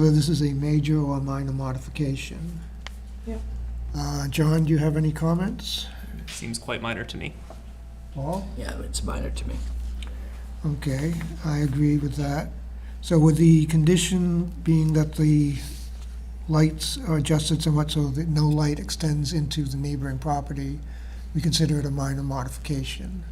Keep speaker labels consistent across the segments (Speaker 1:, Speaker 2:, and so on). Speaker 1: whether this is a major or minor modification.
Speaker 2: Yep.
Speaker 1: Uh, John, do you have any comments?
Speaker 3: Seems quite minor to me.
Speaker 1: Paul?
Speaker 4: Yeah, it's minor to me.
Speaker 1: Okay, I agree with that. So with the condition being that the lights are adjusted somewhat so that no light extends into the neighboring property, we consider it a minor modification.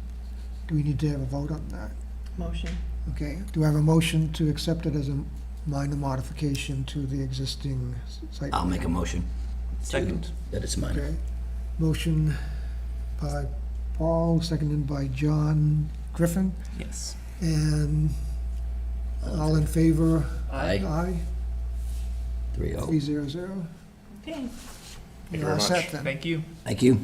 Speaker 1: Do we need to have a vote on that?
Speaker 2: Motion.
Speaker 1: Okay, do I have a motion to accept it as a minor modification to the existing s- site?
Speaker 4: I'll make a motion
Speaker 3: Second.
Speaker 4: that it's minor.
Speaker 1: Okay, motion by Paul, seconded by John Griffin,
Speaker 3: Yes.
Speaker 1: and all in favor?
Speaker 4: Aye,
Speaker 1: Aye,
Speaker 4: three
Speaker 1: three
Speaker 4: oh.
Speaker 1: zero zero.
Speaker 2: Okay.
Speaker 5: Thank you very much.
Speaker 3: Thank you.
Speaker 4: Thank you.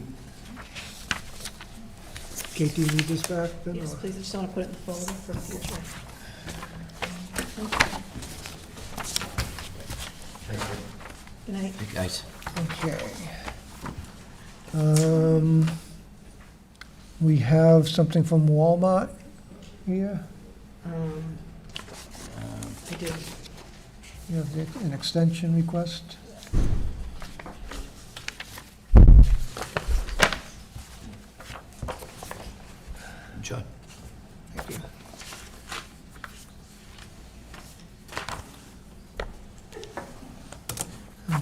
Speaker 1: Kate, do you need this back then?
Speaker 2: Yes,
Speaker 1: or-
Speaker 2: please, I just want to put it in the folder for future. Good night.
Speaker 4: Hey, Guys,
Speaker 1: Okay. Um, we have something from Walmart here,
Speaker 2: Um, I do.
Speaker 1: you have the- an extension request.
Speaker 4: John.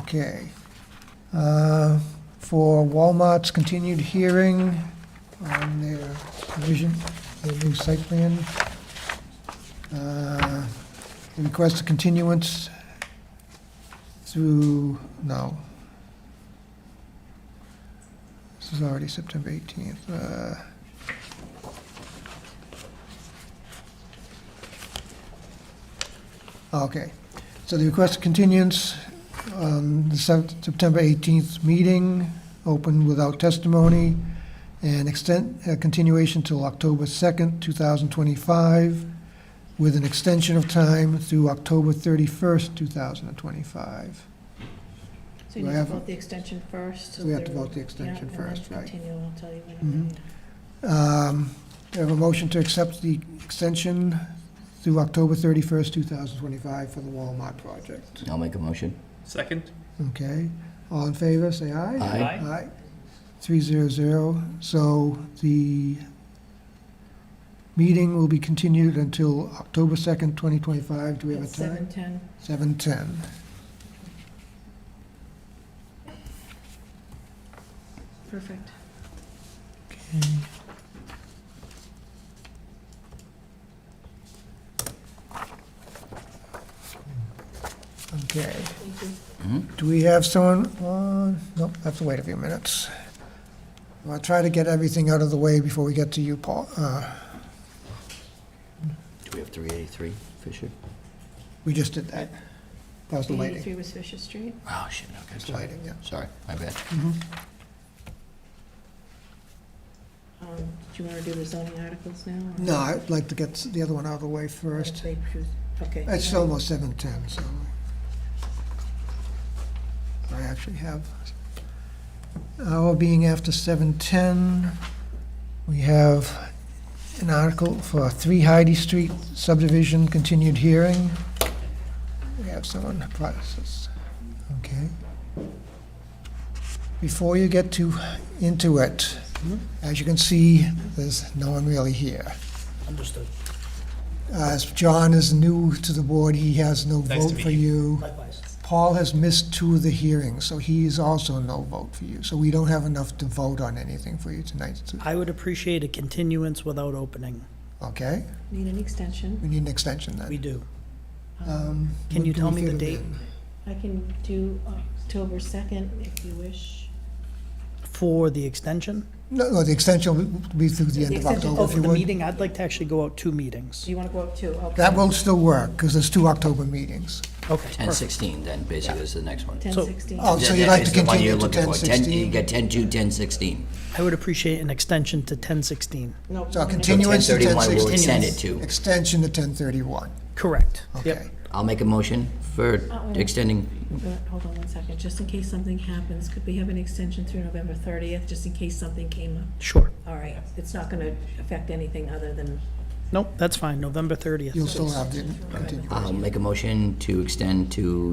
Speaker 1: Okay. Uh, For Walmart's continued hearing on their revision, their new site plan, uh, they request a continuance through, no. This is already September 18th. Uh, Okay, so the request a continuance on the Sep- September 18th meeting, open without testimony, and extend, uh, continuation till October 2nd, 2025, with an extension of time through October 31st, 2025.
Speaker 2: So you
Speaker 1: Do I
Speaker 2: need to
Speaker 1: have a-
Speaker 2: vote the extension first. so
Speaker 1: We have to
Speaker 2: there-
Speaker 1: vote the
Speaker 2: yeah,
Speaker 1: extension first, right.
Speaker 2: And then continue, and I'll tell you when.
Speaker 1: Mhm.
Speaker 2: I need.
Speaker 1: Um, Do I have a motion to accept the extension through October 31st, 2025 for the Walmart project?
Speaker 4: I'll make a motion.
Speaker 3: Second.
Speaker 1: Okay, all in favor, say aye.
Speaker 4: Aye.
Speaker 3: Aye.
Speaker 1: Aye. Three zero zero, so the meeting will be continued until October second, twenty twenty-five, do we have a
Speaker 2: It's
Speaker 1: time?
Speaker 2: 7:10.
Speaker 1: Seven ten.
Speaker 2: Perfect.
Speaker 1: Okay,
Speaker 2: Thank you.
Speaker 4: Mhm.
Speaker 1: do we have someone on, nope, I have to wait a few minutes. I'll try to get everything out of the way before we get to you, Paul, uh,
Speaker 4: Do we have three eighty-three Fisher?
Speaker 1: we just did that. That was the lighting,
Speaker 2: 83 was Fisher Street.
Speaker 4: Oh, shit, okay, sorry.
Speaker 1: lighting, yeah.
Speaker 4: Sorry, my bad.
Speaker 2: Um, Do you want to do the zoning articles now? or-
Speaker 1: No, I'd like to get the other one out of the way
Speaker 2: or if
Speaker 1: first.
Speaker 2: they choose- Okay.
Speaker 1: It's almost seven ten, so. I actually have, hour being after seven ten, we have an article for Three Heidi Street subdivision continued hearing. We have someone, process, okay. Before you get to, into it, as you can see, there's no one really here.
Speaker 6: Understood.
Speaker 1: Uh, As John is new to the board, he has no
Speaker 3: Nice to
Speaker 1: vote
Speaker 3: meet
Speaker 1: for you.
Speaker 6: Likewise.
Speaker 1: Paul has missed two of the hearings, so he is also no vote for you. So we don't have enough to vote on anything for you tonight, so-
Speaker 6: I would appreciate a continuance without opening.
Speaker 1: okay?
Speaker 2: Need an extension.
Speaker 1: We need an extension
Speaker 6: We
Speaker 1: then.
Speaker 6: do.
Speaker 1: Um,
Speaker 6: Can
Speaker 1: what
Speaker 6: you
Speaker 1: do
Speaker 6: tell
Speaker 1: we
Speaker 6: me
Speaker 1: fit
Speaker 6: the
Speaker 1: it
Speaker 6: date?
Speaker 1: in?
Speaker 2: I can do October 2nd if you wish.
Speaker 6: For the extension?
Speaker 1: No, no, the extension will be through the
Speaker 2: The
Speaker 1: end of
Speaker 2: extension-
Speaker 1: October,
Speaker 6: Oh,
Speaker 1: if
Speaker 6: for
Speaker 1: you
Speaker 6: the
Speaker 1: would.
Speaker 6: meeting, I'd like to actually go out two meetings.
Speaker 2: Do you want to go up too? Okay.
Speaker 1: That will still work, because there's two October meetings.
Speaker 6: Okay,
Speaker 4: Ten
Speaker 6: perfect.
Speaker 4: sixteen then, basically, is the next one.
Speaker 2: 10:16.
Speaker 1: Oh, so
Speaker 4: That-
Speaker 1: you'd
Speaker 4: that
Speaker 1: like
Speaker 4: is
Speaker 1: to
Speaker 4: the one
Speaker 1: continue
Speaker 4: you're
Speaker 1: to
Speaker 4: looking
Speaker 1: ten
Speaker 4: for. Ten, you
Speaker 1: sixteen?
Speaker 4: got ten-two, ten-sixteen.
Speaker 6: I would appreciate an extension to ten sixteen.
Speaker 2: No,
Speaker 1: So
Speaker 2: I'm gonna-
Speaker 1: continuance to ten
Speaker 4: 10:31 we'll extend it
Speaker 1: sixteen.
Speaker 4: to.
Speaker 1: Extension to ten thirty-one,
Speaker 6: Correct. Yep.
Speaker 1: okay?
Speaker 4: I'll make a motion for
Speaker 2: wait.
Speaker 4: extending,
Speaker 2: Uh, Hold on one second, just in case something happens, could we have an extension through November 30th, just in case something came up?
Speaker 6: Sure.
Speaker 2: All right, it's not going to affect anything other than,
Speaker 6: Nope, that's fine, November thirtieth.
Speaker 1: You'll still have the continuance.
Speaker 4: I'll make a motion to extend to